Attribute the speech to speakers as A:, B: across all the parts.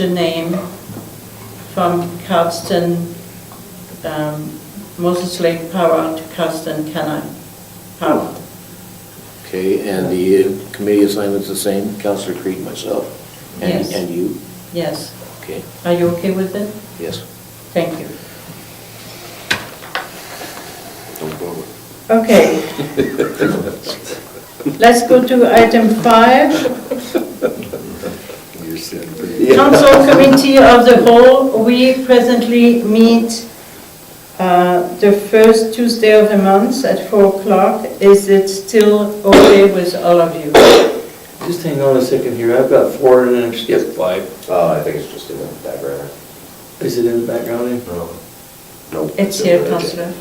A: the name from Cardston, um, Moses Lake Power to Cardston Canal Power.
B: Okay, and the committee assignment's the same, Counselor Creed, myself, and,
A: Yes.
B: and you?
A: Yes,
B: Okay,
A: are you okay with it?
B: yes.
A: Thank you.
B: Don't bother.
A: Okay. Let's go to item five,
B: You're sitting
A: Council Committee of the Whole, we presently meet uh, the first Tuesday of the month at 4 o'clock. Is it still okay with all of you?
C: Just hang on a second here, I've got four and then I've skipped five.
D: Uh, I think it's just in the background.
C: Is it in the background there?
D: Nope.
A: It's
D: in
A: here,
D: the
A: Councillor.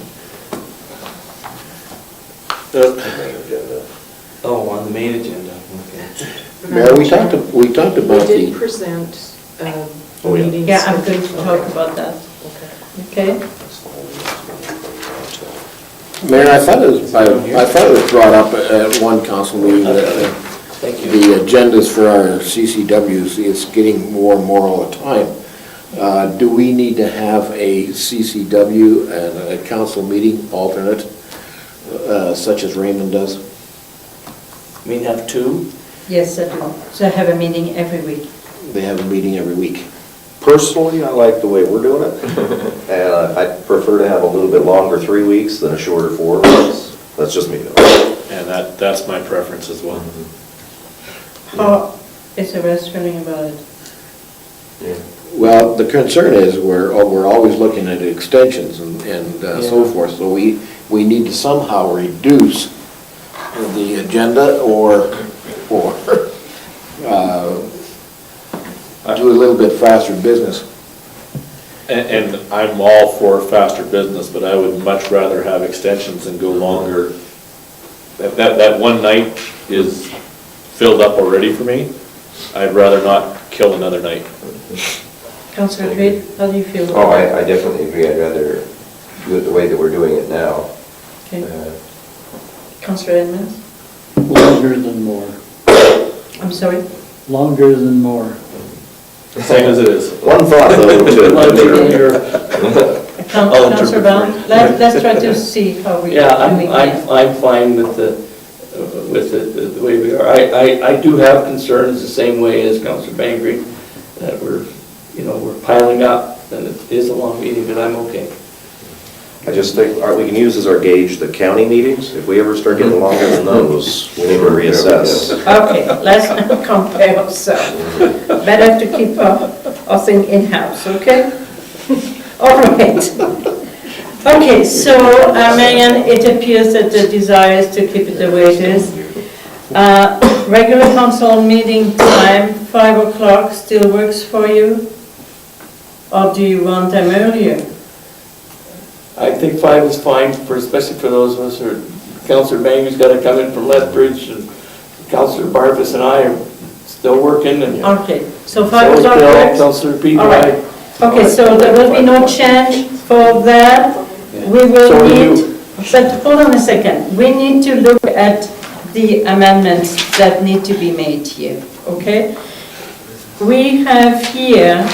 C: Uh,
D: agenda.
C: Oh, on the main agenda, okay.
B: Mayor, we talked, we talked about
E: We did
B: the,
E: present um,
D: Oh, yeah.
E: meetings.
A: Yeah, I'm going to talk about that,
E: Okay.
A: okay?
B: Mayor, I thought it was, I I thought it was brought up at one council meeting that uh,
C: Thank you.
B: the agendas for our CCWs, it's getting more and more all the time. Uh, Do we need to have a CCW and a council meeting alternate, uh, such as Raymond does?
C: I mean, have two?
A: Yes, I do. Oh, So I have a meeting every week.
B: They have a meeting every week.
D: Personally, I like the way we're doing it. Uh, I prefer to have a little bit longer three weeks than a shorter four weeks. That's just me though.
F: And that, that's my preference as well.
A: How is the rest feeling about it?
B: Well, the concern is, we're, oh, we're always looking at extensions and and uh, so
C: Yeah.
B: forth, so we, we need to somehow reduce the agenda or, or uh, do a little bit faster business.
F: And, and I'm all for faster business, but I would much rather have extensions and go longer. That, that, that one night is filled up already for me. I'd rather not kill another night.
A: Councillor Creed, how do you feel?
D: Oh, I, I definitely agree. I'd rather do it the way that we're doing it now.
A: Okay.
D: Uh,
A: Councillor Edmonds?
G: Longer than more,
A: I'm sorry?
G: longer than more.
F: Same as it is.
D: One thought though, to-
A: Coun-
C: I'll
A: Councillor
C: interpret
A: Brown,
C: for you.
A: let- let's try to see how we.
C: Yeah,
A: we
C: I'm,
A: can.
C: I'm, I'm fine with the, uh, with the, the way we are. I, I, I do have concerns the same way as Counselor Bangry, that we're, you know, we're piling up, and it is a long meeting, but I'm okay.
D: I just think, uh, we can use as our gauge the county meetings. If we ever start getting longer than those, we need to reassess.
A: Okay, let's not compare ourselves. Better to keep our, our thing in-house, okay? All right. Okay, so, uh, Marianne, it appears that the desire is to keep it the way it is. Uh, Regular council meeting time, 5 o'clock, still works for you? Or do you want them earlier?
C: I think five is fine, for, especially for those of us who are, Counselor Bangry's gotta come in from Lethbridge, and Counselor Barfus and I are still working, and
A: Okay, so 5
C: So
A: o'clock
C: Bill,
A: works?
C: Counselor Pete,
A: All right.
C: aye.
A: Okay, so there will be no change for that. We will
C: So we
A: need, but hold on a second. We need to look at the amendments that need to be made here, okay? We have here,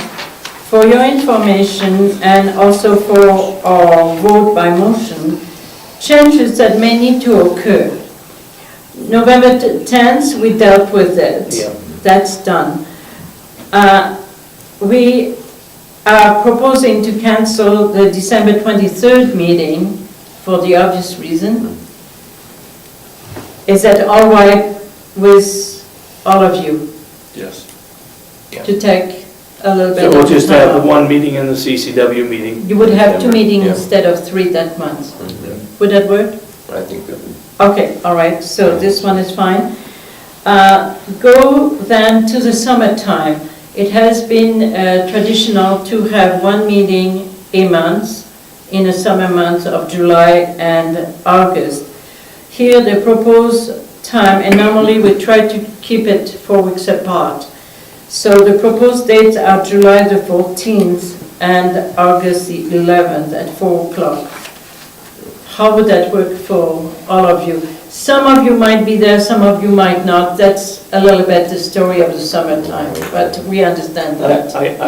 A: for your information and also for our vote by motion, changes that may need to occur. November t- 10th, we dealt with it.
C: Yeah.
A: That's done. Uh, We are proposing to cancel the December 23rd meeting for the obvious reason. Is that all right with all of you
F: Yes.
A: to take a little bit
C: So
A: of
C: we'll just
A: time
C: have the
A: off?
C: one meeting and the CCW meeting.
A: You would have two
C: December,
A: meetings
C: yeah.
A: instead of three that month. Would that work?
D: I think that
A: Okay, all right, so this one is fine. Uh, Go then to the summertime. It has been uh, traditional to have one meeting a month in the summer months of July and August. Here, the proposed time, and normally we try to keep it four weeks apart. So the proposed dates are July the 14th and August the 11th at 4 o'clock. How would that work for all of you? Some of you might be there, some of you might not. That's a little bit the story of the summertime, but we understand that.
C: I, I,